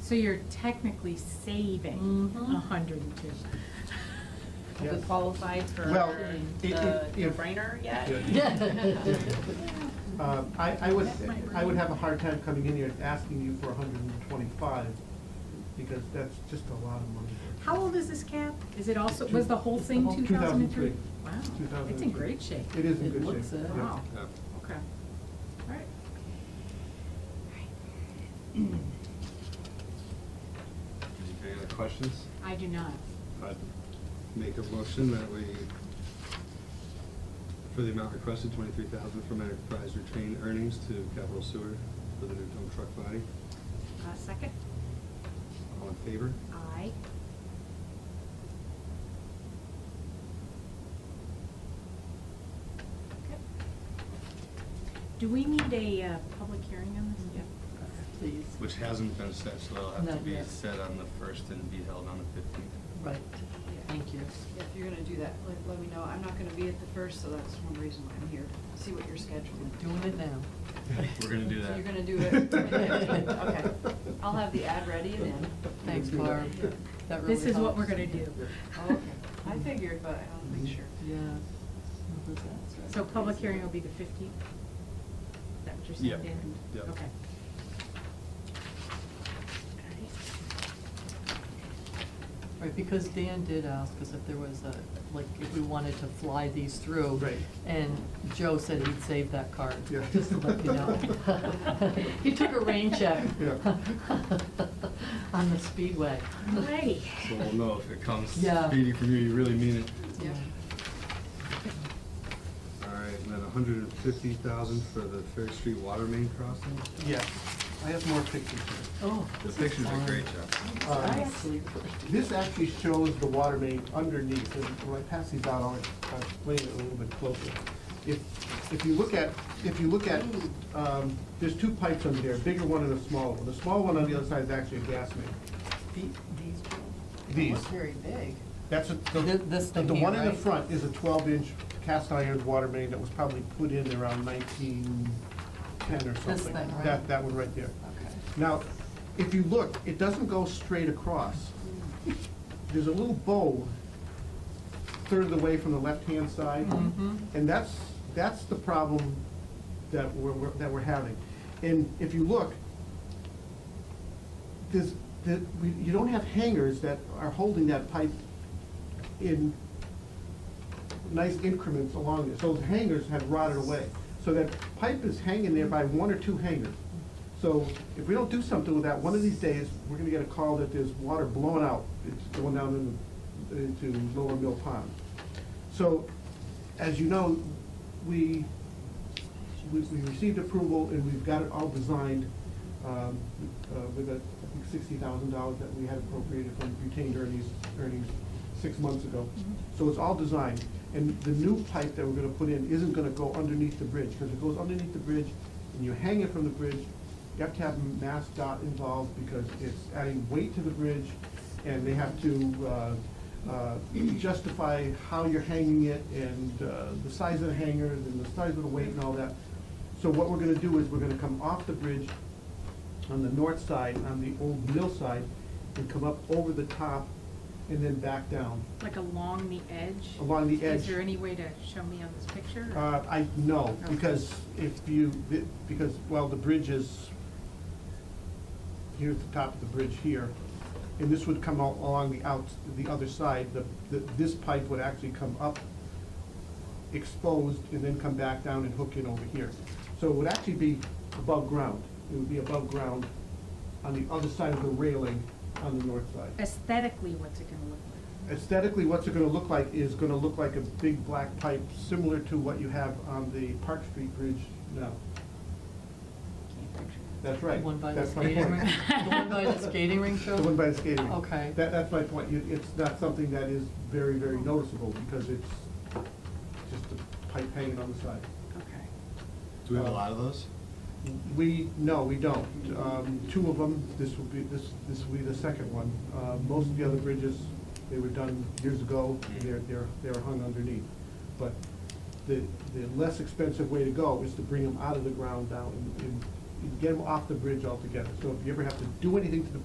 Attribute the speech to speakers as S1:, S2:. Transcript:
S1: So you're technically saving
S2: Mhm.
S1: a hundred and two.
S2: Have we
S3: Yes.
S2: qualified for
S3: Well, it- it-
S2: the
S3: it-
S2: no-brainer yet?
S3: Um, I, I would,
S1: That might
S3: I would
S1: work.
S3: have a hard time coming in here and asking you for hundred and twenty-five, because that's just a lot of money.
S1: How old is this cap? Is it also, was the whole thing two thousand and three? Wow, it's in
S3: 2003.
S1: great shape.
S3: It is in
S4: It
S3: good shape.
S4: looks it.
S3: yeah.
S1: Wow,
S5: Yep.
S1: okay. All right.
S5: Any other questions?
S1: I do not.
S5: I'd make a motion that we, for the amount requested, twenty-three thousand from enterprise retained earnings to capital sewer for the new dump truck body.
S1: Uh, second?
S5: All in favor?
S1: Aye. Okay. Do we need a uh, public hearing on this?
S4: Please,
S5: Which hasn't been set, so it'll have to
S4: Not
S5: be
S4: yet.
S5: set on the first and be held on the fifteenth.
S4: right, thank you.
S6: If you're gonna do that, let, let me know. I'm not gonna be at the first, so that's one reason why I'm here, see what your schedule is.
S4: Doing it now.
S5: We're gonna do
S6: So
S5: that.
S6: you're gonna do it? Okay. I'll have the ad ready and in.
S4: Thanks, Barb. That
S1: This
S4: really
S1: is what we're
S4: helps.
S1: gonna do.
S6: Oh, Okay. I figured, but I want to make sure.
S4: Yeah. Well, that's right.
S1: So public hearing will be the fifteenth? Is that what you're saying?
S5: Yeah.
S1: Dan?
S5: Yeah.
S1: Okay.
S4: Right, because Dan did ask us if there was a, like, if we wanted to fly these through.
S3: Right.
S4: And Joe said he'd save that card,
S3: Yeah.
S4: just to let you know. He took a rain check.
S3: Yeah.
S4: On the speedway.
S1: All righty.
S5: So we'll know if it comes
S4: Yeah.
S5: speedy from you, you really mean it.
S6: Yeah.
S5: All right, and then a hundred and fifty thousand for the Fair Street water main crossing.
S3: Yes, I have more pictures here.
S4: Oh.
S5: The
S4: this is
S5: pictures are
S4: fun.
S5: great, Jeff.
S3: Um,
S4: Absolutely.
S3: This actually shows the water main underneath, and when I pass these out, I'll I'll explain it a little bit closer. If, if you look at, if you look at, um, there's two pipes under there, a bigger one and a smaller one. The small one on the other side is actually a gas main.
S4: The- These,
S3: These,
S4: look very big.
S3: that's a,
S4: Thi-
S3: the,
S4: this
S3: the
S4: thing
S3: the
S4: here,
S3: one in the
S4: right?
S3: front is a twelve inch cast iron water main that was probably put in around nineteen ten or something.
S4: thing, right?
S3: That, that one right there.
S4: Okay.
S3: Now, if you look, it doesn't go straight across. There's a little bow third of the way from the left-hand side.
S4: Mhm.
S3: And that's, that's the problem that we're, we're- that we're having. And if you look, there's, the, we, you don't have hangers that are holding that pipe in nice increments along this. Those hangers have rotted away. So that pipe is hanging there by one or two hangers. So if we don't do something with that, one of these days, we're gonna get a call that there's water blowing out. It's going down in, into Lower Mill Pond. So, as you know, we, we, we received approval and we've got it all designed, um, uh, with a, I think sixty thousand dollars that we had appropriated from retained earnings, earnings six months ago. So it's all designed, and the new pipe that we're gonna put in isn't gonna go underneath the bridge, because it goes underneath the bridge, and you hang it from the bridge, you have to have Mass dot involved, because it's adding weight to the bridge, and they have to, uh, uh, justify how you're hanging it, and, uh, the size of the hanger, and the size of the weight and all that. So what we're gonna do is, we're gonna come off the bridge on the north side, on the old mill side, and come up over the top, and then back down.
S1: Like along the edge?
S3: Along the edge.
S1: Is there any way to show me on this picture?
S3: Uh, I, no,
S1: Okay.
S3: because if you, because, well, the bridge is, here at the top of the bridge here, and this would come out along the out, the other side, the, the- this pipe would actually come up exposed and then come back down and hook in over here. So it would actually be above ground, it would be above ground on the other side of the railing on the north side
S1: Aesthetically, what's it gonna look like?
S3: aesthetically, what's it gonna look like is gonna look like a big black pipe, similar to what you have on the Park Street Bridge now.
S1: Can't picture it.
S3: That's right.
S4: The one by the
S3: That's my
S4: skating
S3: point.
S4: rink, the one by the skating rink show?
S3: The one by the skating rink.
S4: Okay.
S3: That, that's my point. You- It's not something that is very, very noticeable because it's just a pipe hanging on the side.
S1: Okay.
S5: Do we have a lot of those?
S3: We, no, we don't. Um, Two of them, this will be, this, this will be the second one. Uh, Most of the other bridges, they were done years ago, they're, they're, they're hung underneath. But the, the less expensive way to go is to bring them out of the ground down and, and get them off the bridge altogether. So if you ever have to do anything to the